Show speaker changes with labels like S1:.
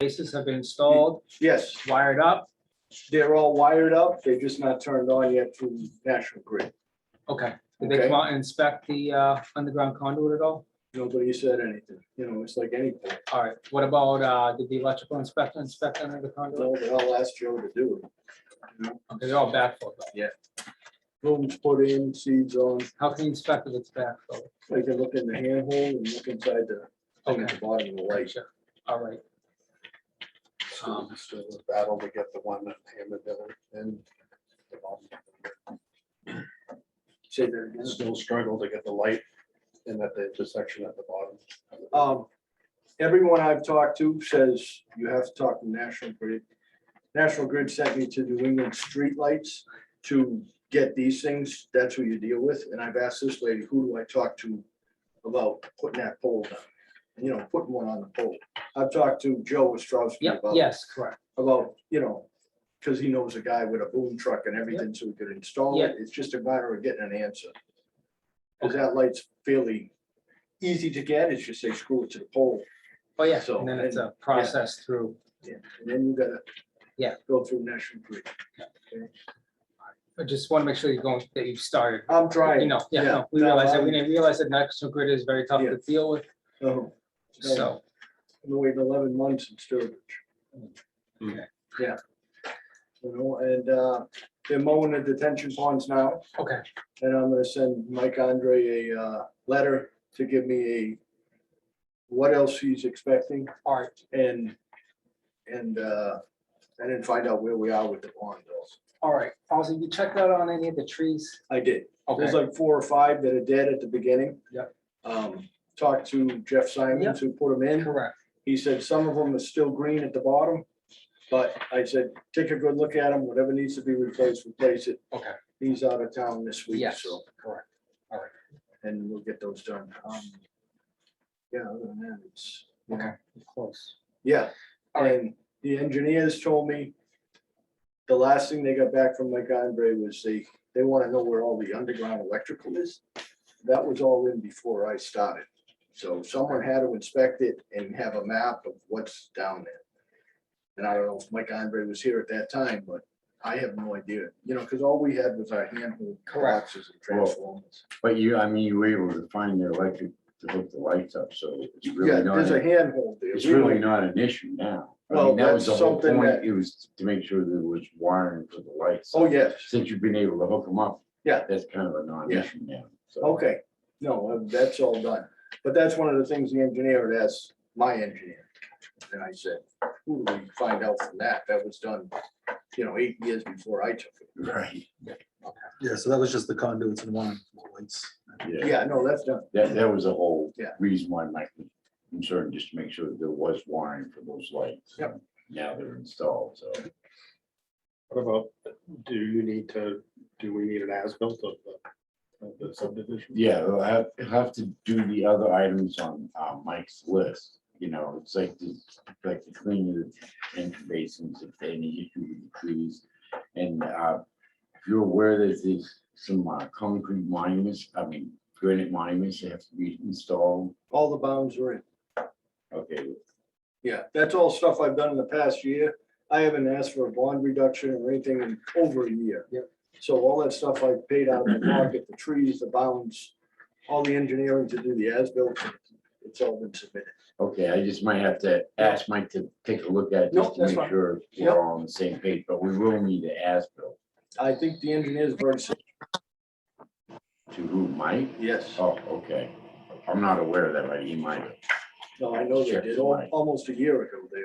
S1: Bases have been installed,
S2: Yes,
S1: wired up.
S2: they're all wired up. They're just not turned on yet through National Grid.
S1: Okay. Did they come out and inspect the uh, underground conduit at all?
S2: Nobody said anything, you know, it's like anything.
S1: All right. What about, uh, did the electrical inspector inspect under the conduit?
S2: Well, but I'll ask Joe to do it.
S1: Okay, they're all backfilled. though.
S2: Rooms put in, seeds on,
S1: How can you inspect if it's backfilled?
S2: they can look in the handhole and look inside the, thing at the bottom of the light.
S1: Gotcha. All right.
S3: Um, so it was a battle to get the one that hammered down and. the bottom.
S2: Say that again.
S3: Still struggle to get the light in at the intersection at the bottom.
S2: Um, everyone I've talked to says you have to talk to National Grid. National Grid sent me to New England Streetlights to get these things. That's who you deal with. And I've asked this lady, who do I talk to about putting that pole down? And, You know, putting one on the pole. I've talked to Joe Ostrowski
S1: Yep,
S2: about
S1: yes, correct.
S2: about, you know, because he knows a guy with a boom truck and everything, so we could install it. It's just a matter of getting an answer. Because that light's fairly easy to get. It's just they screw it to the pole.
S1: Oh, yeah.
S2: So,
S1: And then it's
S2: and-
S1: a process through.
S2: And then you gotta.
S1: Yeah.
S2: Go through National Grid.
S1: I just want to make sure you're going, that you've started.
S2: I'm
S1: You
S2: trying.
S1: know, yeah,
S2: Yeah.
S1: no, we
S2: No,
S1: realize that. We
S2: I'm-
S1: didn't realize that national grid is very tough to
S2: Yeah.
S1: deal with.
S2: Oh, No.
S1: So,
S2: I've been waiting eleven months in Sturbridge.
S1: Mm.
S3: Hmm.
S2: Yeah. You know, and uh, they're mowing the detention ponds now.
S1: okay,
S2: And I'm gonna send Mike Andre a uh, letter to give me a what else he's expecting
S1: all right,
S2: and, and, uh, and then find out where we are with the pond bills.
S1: all right. Also, you checked out on any of the trees?
S2: I did.
S1: Okay,
S2: There's like four or five that are dead at the beginning.
S1: Yep.
S2: Um, talked to Jeff Simons who put them in.
S1: correct.
S2: He said some of them are still green at the bottom. But I said, take a good look at them. Whatever needs to be replaced, replace it.
S1: Okay,
S2: He's out of town this week,
S1: yes,
S2: so.
S1: correct.
S2: and we'll get those done. Um, Yeah, other than that, it's,
S1: Okay, close.
S2: yeah,
S1: All right.
S2: and the engineers told me the last thing they got back from Mike Andre was they, they want to know where all the underground electrical is. That was all in before I started. So someone had to inspect it and have a map of what's down there. And I don't know if Mike Andre was here at that time, but I have no idea, you know, because all we had was our handheld
S1: Correct.
S2: boxes and transformers.
S4: But you, I mean, you were able to find the electric to hook the lights up, so it's
S2: Yeah,
S4: really
S2: there's
S4: not,
S2: a handhold there.
S4: it's
S2: We don't-
S4: really not an issue now. I
S2: Well,
S4: mean, that was the
S2: that's
S4: whole
S2: something
S4: point,
S2: that-
S4: it was to make sure there was wiring for the lights.
S2: Oh, yes,
S4: Since you've been able to hook them up.
S2: Yeah. Oh.
S4: That's kind of a non-issue now, so.
S2: okay, no, uh, that's all done, but that's one of the things the engineer had asked my engineer. And I said, who do we find out from that, that was done, you know, eight years before I took it.
S4: Right,
S5: Yeah, so that was just the conduits and one lights.
S4: yeah,
S2: Yeah, no, that's done,
S4: that, that was the whole
S2: Yeah.
S4: reason why my concern, just to make sure that there was wiring for those lights.
S2: Yep.
S4: Now they're installed, so.
S3: What about, do you need to, do we need an as-built of the, of the subdivision?
S4: Yeah, we'll have, we'll have to do the other items on uh, Mike's list, you know, it's like, the like the cleaning of the entry basins, if they need to with the trees. And uh, if you're aware that there's some uh, concrete monuments, I mean granite monuments that have to be installed,
S2: all the bounds were in,
S4: okay,
S2: yeah, that's all stuff I've done in the past year. I haven't asked for a bond reduction or anything in over a year.
S1: Yep.
S2: So all that stuff I paid out of the pocket, the trees, the bounds, all the engineering to do the as-built, it's all been submitted.
S4: okay, I just might have to ask Mike to take a look at it
S2: No,
S4: just to
S2: that's
S4: make
S2: fine.
S4: sure
S2: Yep.
S4: we're all on the same page, but we will need to ask Bill
S2: I think the engineers have already said
S4: to who, Mike?
S2: yes.
S4: Oh, okay, I'm not aware of that, but he might have.
S2: No, I know they did, al- almost a year ago, they